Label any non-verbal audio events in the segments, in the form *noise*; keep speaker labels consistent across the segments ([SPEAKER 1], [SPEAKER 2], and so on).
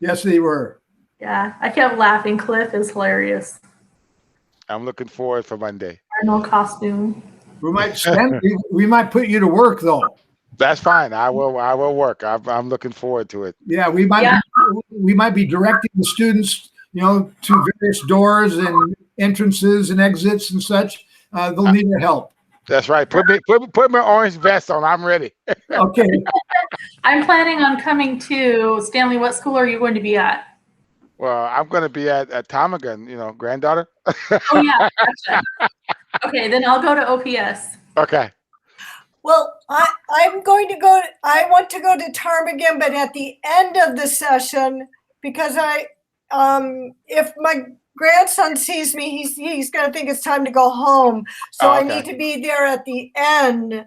[SPEAKER 1] Yes, they were.
[SPEAKER 2] Yeah, I kept laughing. Cliff is hilarious.
[SPEAKER 3] I'm looking forward for Monday.
[SPEAKER 2] Colonel costume.
[SPEAKER 1] We might spend, we- we might put you to work though.
[SPEAKER 3] That's fine. I will. I will work. I'm, I'm looking forward to it.
[SPEAKER 1] Yeah, we might,
[SPEAKER 2] Yeah.
[SPEAKER 1] we might be directing the students, you know, to various doors and entrances and exits and such. Uh, they'll need your help.
[SPEAKER 3] That's right. Put me. Put, put my orange vest on. I'm ready.
[SPEAKER 1] Okay,
[SPEAKER 2] I'm planning on coming to Stanley. What school are you going to be at?
[SPEAKER 3] Well, I'm going to be at at Tomagon. You know, granddaughter.
[SPEAKER 2] Oh yeah. gotcha. okay, then I'll go to OPS.
[SPEAKER 3] Okay.
[SPEAKER 4] Well, I, I'm going to go, I want to go to Ptarmigan, but at the end of the session, because I, um, if my grandson sees me, he's, he's gonna think it's time to go home. So
[SPEAKER 3] Oh,
[SPEAKER 4] I
[SPEAKER 3] okay.
[SPEAKER 4] need to be there at the end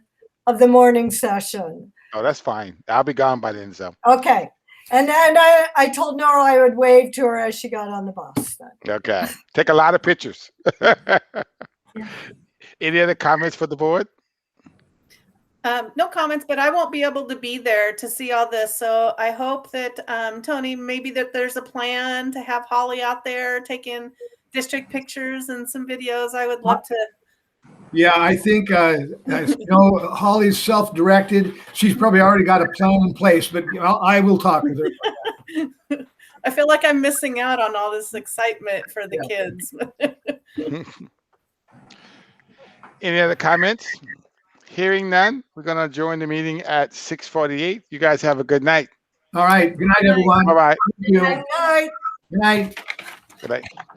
[SPEAKER 4] of the morning session.
[SPEAKER 3] Oh, that's fine. I'll be gone by then. So
[SPEAKER 4] Okay. And then I, I told Nora I would wave to her as she got on the bus. then.
[SPEAKER 3] okay. Take a lot of pictures. *laughs* Any other comments for the board?
[SPEAKER 5] Um, no comments, but I won't be able to be there to see all this. So I hope that, um, Tony, maybe that there's a plan to have Holly out there taking district pictures and some videos. I would love to.
[SPEAKER 1] yeah, I think, uh, I- you know, Holly's self-directed. She's probably already got a plan in place, but you know, I will talk with her.
[SPEAKER 5] I feel like I'm missing out on all this excitement for the kids.
[SPEAKER 3] Any other comments? Hearing none, we're going to join the meeting at 6:48. You guys have a good night.
[SPEAKER 1] All right, good night, everyone.
[SPEAKER 3] Bye bye.
[SPEAKER 1] Thank you.
[SPEAKER 4] Good night.
[SPEAKER 1] Good night.
[SPEAKER 3] Good night.